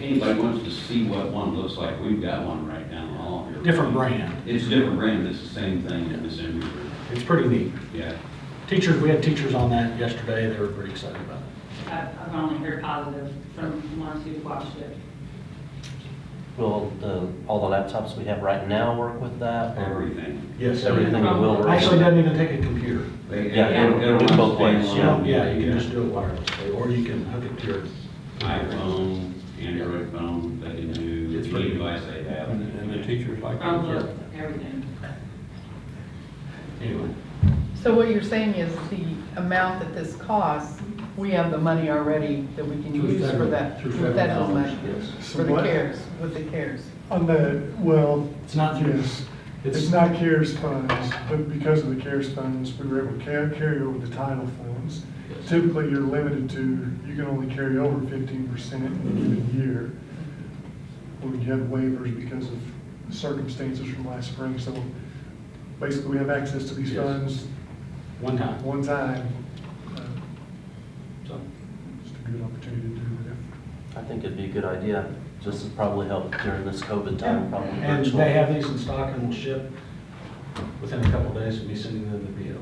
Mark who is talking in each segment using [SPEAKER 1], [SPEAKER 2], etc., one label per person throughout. [SPEAKER 1] anybody wants to see what one looks like, we've got one right down the hall here.
[SPEAKER 2] Different brand.
[SPEAKER 1] It's a different brand, it's the same thing in this room.
[SPEAKER 2] It's pretty neat.
[SPEAKER 1] yeah.
[SPEAKER 2] Teachers, we had teachers on that yesterday, they were pretty excited about it.
[SPEAKER 3] I've I've only heard positive from ones who've watched it.
[SPEAKER 4] Will the, all the laptops we have right now work with that? or-
[SPEAKER 1] Everything.
[SPEAKER 2] Yes.
[SPEAKER 4] Everything will work.
[SPEAKER 2] um, Actually, it doesn't even take a computer.
[SPEAKER 1] They-
[SPEAKER 4] Yeah,
[SPEAKER 1] it'll- it'll
[SPEAKER 4] it's
[SPEAKER 1] run
[SPEAKER 4] both ways,
[SPEAKER 1] standalone,
[SPEAKER 2] Yeah, yeah, you can just do it wirelessly, or you can hook it to your.
[SPEAKER 1] iPhone, Android phone, they can do
[SPEAKER 2] It's
[SPEAKER 1] any
[SPEAKER 2] pretty-
[SPEAKER 1] device they have.
[SPEAKER 5] And and the teachers like that.
[SPEAKER 3] Chromebook, everything.
[SPEAKER 2] Anyway,
[SPEAKER 6] So what you're saying is the amount that this costs, we have the money already that we can
[SPEAKER 2] Through
[SPEAKER 6] use for
[SPEAKER 2] federal-
[SPEAKER 6] that,
[SPEAKER 2] through
[SPEAKER 6] through
[SPEAKER 2] federal
[SPEAKER 6] federal
[SPEAKER 2] dollars,
[SPEAKER 6] money,
[SPEAKER 2] yes.
[SPEAKER 6] for the
[SPEAKER 7] What?
[SPEAKER 6] CARES, with the CARES.
[SPEAKER 7] On the, well,
[SPEAKER 2] it's not through this.
[SPEAKER 7] it's not CARES funds, but because of the CARES funds, we were able to ca- carry over the title funds. Typically, you're limited to, you can only carry over fifteen percent in a given year. Or you have waivers because of circumstances from last spring, so basically, we have access to these
[SPEAKER 2] Yes.
[SPEAKER 7] funds
[SPEAKER 2] One time.
[SPEAKER 7] one time. Uh,
[SPEAKER 2] So,
[SPEAKER 7] Just a good opportunity to do that.
[SPEAKER 4] I think it'd be a good idea. This would probably help during this COVID time, probably
[SPEAKER 2] And
[SPEAKER 4] virtual.
[SPEAKER 2] they have these in stock and will ship within a couple days of me sending them the PO.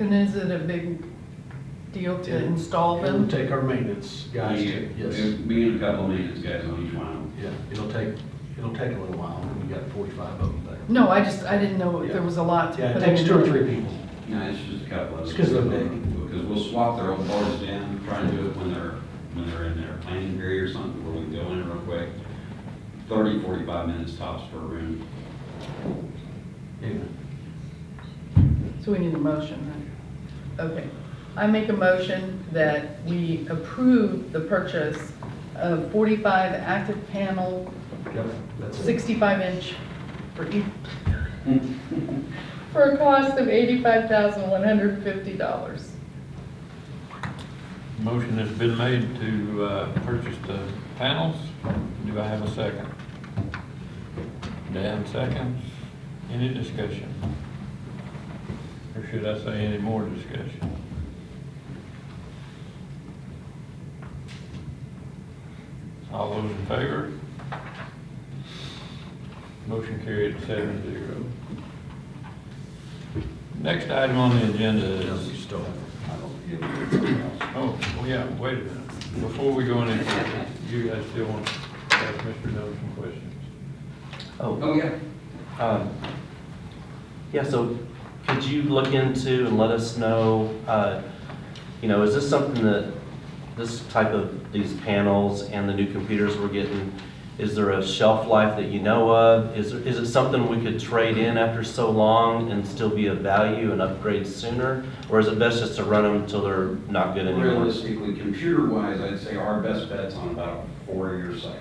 [SPEAKER 6] And is it a big deal to install
[SPEAKER 2] It'll
[SPEAKER 6] them?
[SPEAKER 2] take our maintenance guys to,
[SPEAKER 1] Yeah,
[SPEAKER 2] yes.
[SPEAKER 1] Me and a couple of maintenance guys on each one.
[SPEAKER 2] Yeah, it'll take, it'll take a little while, we got forty-five of them there.
[SPEAKER 6] No, I just, I didn't know if there was a lot to
[SPEAKER 2] Yeah, it
[SPEAKER 6] put
[SPEAKER 2] takes two or
[SPEAKER 6] in.
[SPEAKER 2] three people.
[SPEAKER 1] No, it's just a couple of.
[SPEAKER 2] It's 'cause they're big.
[SPEAKER 1] Because we'll swap their old boards down, try and do it when they're, when they're in their planning period or something, where we go in real quick. Thirty, forty-five minutes tops per room.
[SPEAKER 2] Anyway,
[SPEAKER 6] So we need a motion, huh? Okay. I make a motion that we approve the purchase of 45 active panel,
[SPEAKER 2] yep, that's it.
[SPEAKER 6] 65 inch for each, for a cost of $85,150.
[SPEAKER 5] Motion has been made to uh, purchase the panels. Do I have a second? Dan seconds. Any discussion? Or should I say any more discussion? All those in favor? Motion carried seven zero. Next item on the agenda is Oh, well, yeah, wait a minute. Before we go any further, you guys still want to ask Mr. Dillon some questions?
[SPEAKER 4] Oh,
[SPEAKER 1] Oh, yeah.
[SPEAKER 4] um, yeah, so could you look into and let us know, uh, you know, is this something that, this type of, these panels and the new computers we're getting, is there a shelf life that you know of? Is, there- is it something we could trade in after so long and still be of value and upgrade sooner? Or is it best just to run them till they're not good anymore?
[SPEAKER 1] Realistically, computer-wise, I'd say our best bet's on about a four-year cycle.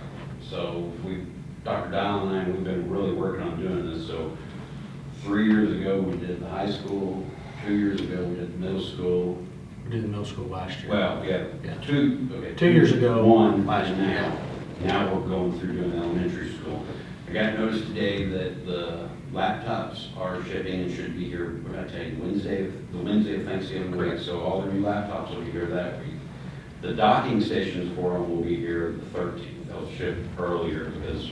[SPEAKER 1] So we, Dr. Dial and I, we've been really working on doing this, so three years ago, we did the high school, two years ago, we did middle school.
[SPEAKER 2] We did the middle school last year.
[SPEAKER 1] Well, yeah,
[SPEAKER 2] Yeah.
[SPEAKER 1] two, okay.
[SPEAKER 2] Two years ago.
[SPEAKER 1] One,
[SPEAKER 2] Last
[SPEAKER 1] and
[SPEAKER 2] year.
[SPEAKER 1] now, now we're going through doing elementary school. I got notice today that the laptops are shipping and should be here, what did I tell you, Wednesday, of- the Wednesday of Thanksgiving week, so all the new laptops will be here that week. The docking stations for them will be here the thirteenth, they'll ship earlier because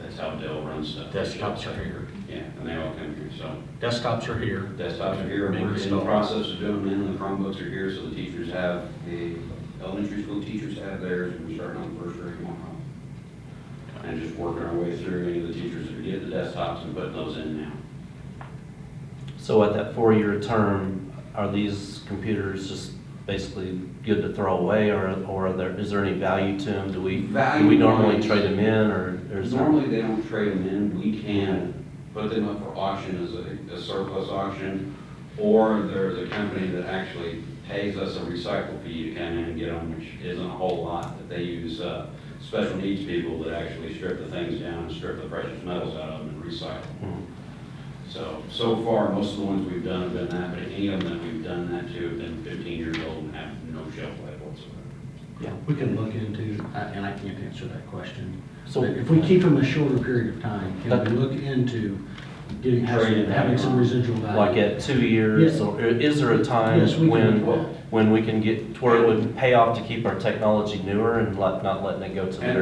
[SPEAKER 1] that's how Dell runs stuff.
[SPEAKER 2] Desktops are here.
[SPEAKER 1] Yeah, and they all come here, so.
[SPEAKER 2] Desktops are here.
[SPEAKER 1] Desktops are here,
[SPEAKER 2] Being
[SPEAKER 1] we're in the
[SPEAKER 2] installed.
[SPEAKER 1] process of doing them, and the Chromebooks are here, so the teachers have, the elementary school teachers have theirs, and we're starting on the first grade tomorrow. And just working our way through any of the teachers that are getting the desktops and putting those in now.
[SPEAKER 4] So at that four-year term, are these computers just basically good to throw away, or, or are there, is there any value to them? Do we, do we
[SPEAKER 1] Value-wise-
[SPEAKER 4] normally trade them in, or? or is there-
[SPEAKER 1] Normally, they don't trade them in, we can put them up for auction as a- a surplus auction, or there's a company that actually pays us a recycle fee to come in and get them, which isn't a whole lot, that they use uh, special needs people that actually strip the things down, and strip the precious metals out of them and recycle.
[SPEAKER 4] Hmm.
[SPEAKER 1] So, so far, most of the ones we've done have been that, but any of them that we've done that to have been 15 years old and have no shelf life whatsoever.
[SPEAKER 2] We can look into, I- and I can't answer that question.
[SPEAKER 4] So-
[SPEAKER 2] But if we keep them a shorter period of time, can
[SPEAKER 4] That-
[SPEAKER 2] we look into getting,
[SPEAKER 1] Trade
[SPEAKER 2] having
[SPEAKER 1] it
[SPEAKER 2] having
[SPEAKER 1] back
[SPEAKER 2] some
[SPEAKER 1] on.
[SPEAKER 2] residual value?
[SPEAKER 4] Like at two years,
[SPEAKER 2] Yeah.
[SPEAKER 4] or is there a time
[SPEAKER 2] Yes, we can
[SPEAKER 4] when,
[SPEAKER 2] do that.
[SPEAKER 4] when we can get, to where it would pay off to keep our technology newer and let- not letting it go to the
[SPEAKER 1] And